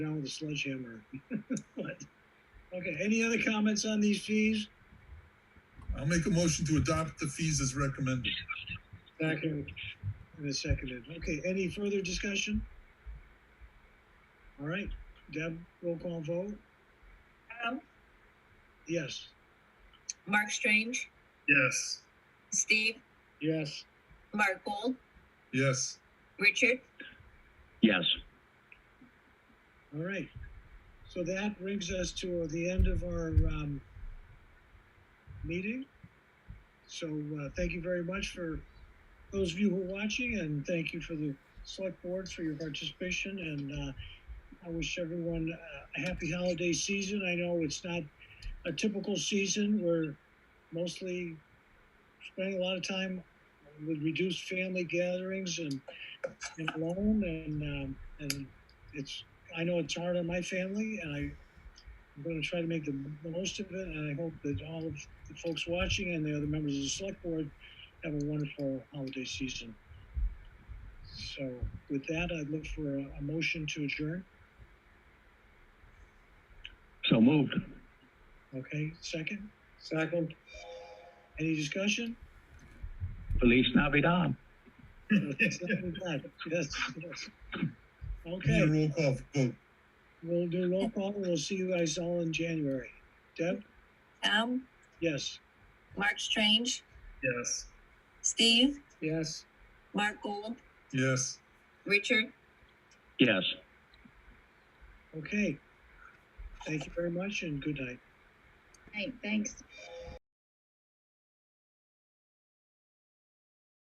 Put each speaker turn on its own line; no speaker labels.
down with a sledgehammer. But, okay, any other comments on these fees?
I'll make a motion to adopt the fees as recommended.
Second. And a seconded. Okay, any further discussion? All right, Deb, roll call vote?
Adam,
Yes.
Mark Strange,
Yes.
Steve,
Yes.
Mark Gold,
Yes,
Richard,
Yes,
All right. So that brings us to the end of our, um, meeting. So, uh, thank you very much for those of you who are watching and thank you for the select board for your participation and, uh, I wish everyone uh, a happy holiday season. I know it's not a typical season. We're mostly spending a lot of time with reduced family gatherings and, and alone and, um, and it's I know it's hard on my family, and I, I'm going to try to make the most of it. And I hope that all of the folks watching and the other members of the select board have a wonderful holiday season. So, with that, I'd look for a, a motion to adjourn.
so moved.
Okay, second? Second. Any discussion?
Feliz Navidad.
yes, yes.
we need a
Okay,
roll call vote.
we'll do roll call. We'll see you guys all in January. Deb?
Adam,
Yes.
Mark Strange,
Yes.
Steve,
Yes.
Mark Gold,
Yes.
Richard,
Yes.
Okay. Thank you very much and good night.
hey, thanks.